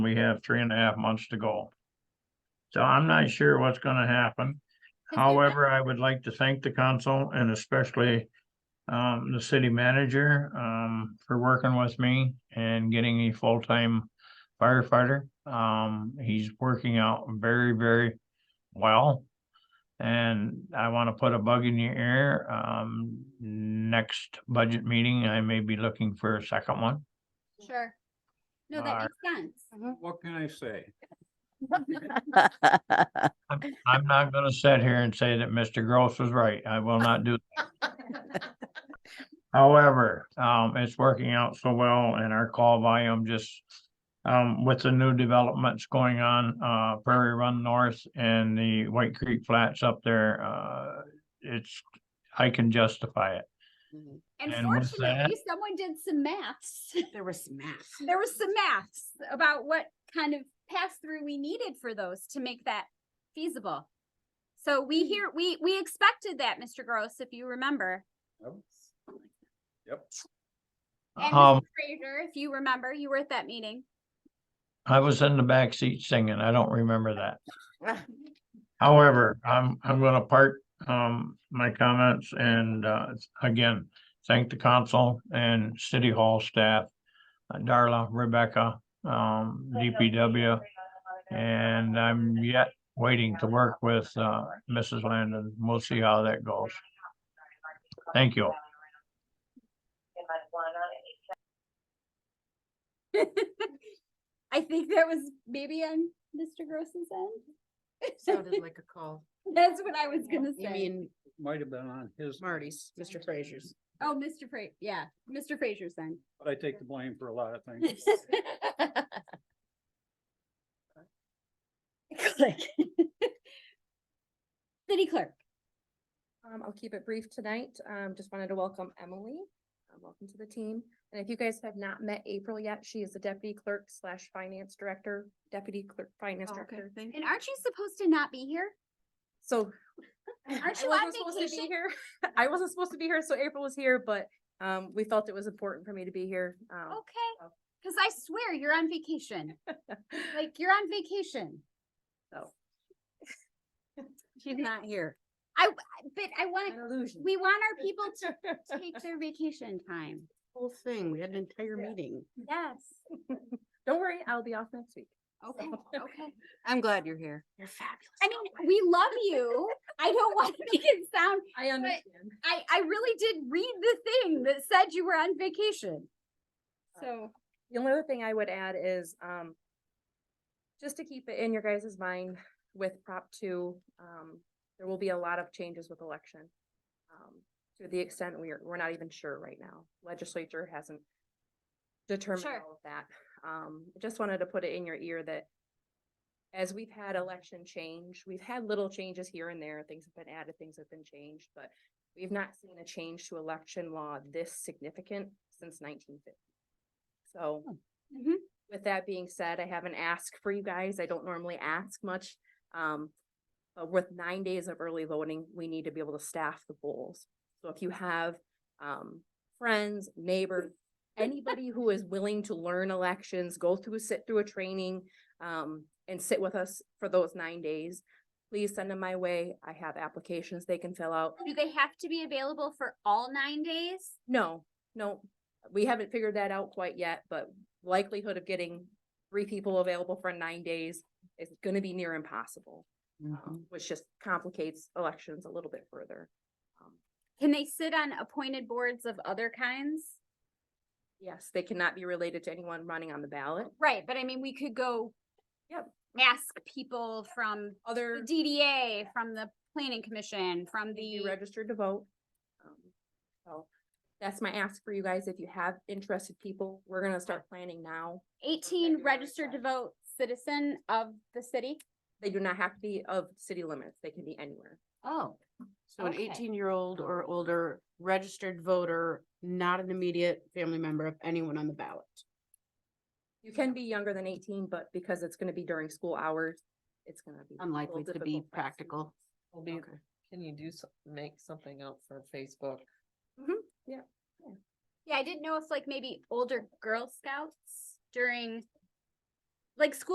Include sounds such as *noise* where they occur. We have three and a half months to go. So I'm not sure what's gonna happen. Is there- However, I would like to thank the council and especially um, the city manager, um, for working with me and getting a full-time firefighter. Um, he's working out very, very well. And I want to put a bug in your ear. Um, next budget meeting, I may be looking for a second one. Sure. No, Are- that makes sense. What can I say? I'm, I'm not gonna sit here and say that Mr. Gross was right. I will not do. that. However, um, it's working out so well and our call volume just, um, with the new developments going on, uh, Prairie Run North and the White Creek Flats up there, uh, it's, I can justify it. And And with fortunately, someone did some maths. *laughs* There was some math. There was some maths about what kind of pass-through we needed for those to make that feasible. So we hear, we, we expected that, Mr. Gross, if you remember. Yep. And Um, Mr. Fraser, if you remember, you were at that meeting. *laughs* I was in the back seat singing. I don't remember that. *laughs* However, I'm, I'm gonna part, um, my comments and, uh, again, thank the council and city hall staff. uh, Darla, Rebecca, um, DPW, and I'm yet waiting to work with, uh, Mrs. Landon. We'll see how that goes. Thank you. I think that was maybe on Mr. Gross's end. Sounded like a call. *laughs* That's what I was gonna You say. mean Might have been on his, Marty's, Mr. Frazier's. Oh, Mr. Fra, yeah, Mr. Fraser's end. but I take the blame for a lot of things. Click. *laughs* City clerk. Um, I'll keep it brief tonight. Um, just wanted to welcome Emily. Uh, Welcome to the team. And if you guys have not met April yet, she is the deputy clerk slash finance director, deputy clerk, finance director. And aren't Oh, you supposed to not be here? So. Aren't I you wasn't on supposed to be vacation? here. *laughs* I wasn't supposed to be here, so April was here, but, um, we felt it was important for me to be here. Oh. Um, Okay, cause I swear you're on *laughs* vacation. Like, you're on vacation. *laughs* so. Oh. She's not here. I, but I want, illusion. we want *laughs* our *laughs* people to take their vacation time. Whole thing, we had an entire Yeah. meeting. Yes. Don't worry, I'll be off next week. Okay, okay. I'm glad you're here. You're fabulous. I mean, we love you. I don't want to make it sound, I understand. I, I really did read the thing that said you were on vacation. So, The only other thing I would add is, um, just to keep it in your guys' mind with Prop two, um, there will be a lot of changes with election. Um, to the extent we are, we're not even sure right now. Legislature hasn't determined Sure. all of that. Um, I just wanted to put it in your ear that as we've had election change, we've had little changes here and there, things have been added, things have been changed, but we've not seen a change to election law this significant since nineteen fifty. So mhm. with that being said, I have an ask for you guys. I don't normally ask much. Um, but with nine days of early voting, we need to be able to staff the polls. So if you have, um, friends, neighbors, anybody who is willing to learn elections, go through, sit through a training, um, and sit with us for those nine days, please send them my way. I have applications they can fill out. do they have to be available for all nine days? No, no, we haven't figured that out quite yet, but likelihood of getting three people available for nine days is gonna be near impossible. Mm-hmm. um, Which just complicates elections a little bit further. Um, Can they sit on appointed boards of other kinds? Yes, they cannot be related to anyone running on the ballot. Right, but I mean, we could go. Yep. Ask people from the Other, DDA, from the planning commission, from be the, registered to vote. Um, So that's my ask for you guys. If you have interested people, we're gonna start planning now. eighteen February registered to seventh. vote citizen of the city. They do not have to be of city limits. They can be anywhere. Oh. So an Okay. eighteen-year-old or older registered voter, not an immediate family member of anyone on the ballot. You can be younger than eighteen, but because it's gonna be during school hours, it's gonna be. a little Unlikely to be difficult for us. practical. Will be, can you do, so- make something up for Facebook? Yeah, I didn't know if like maybe older Girl Scouts during like school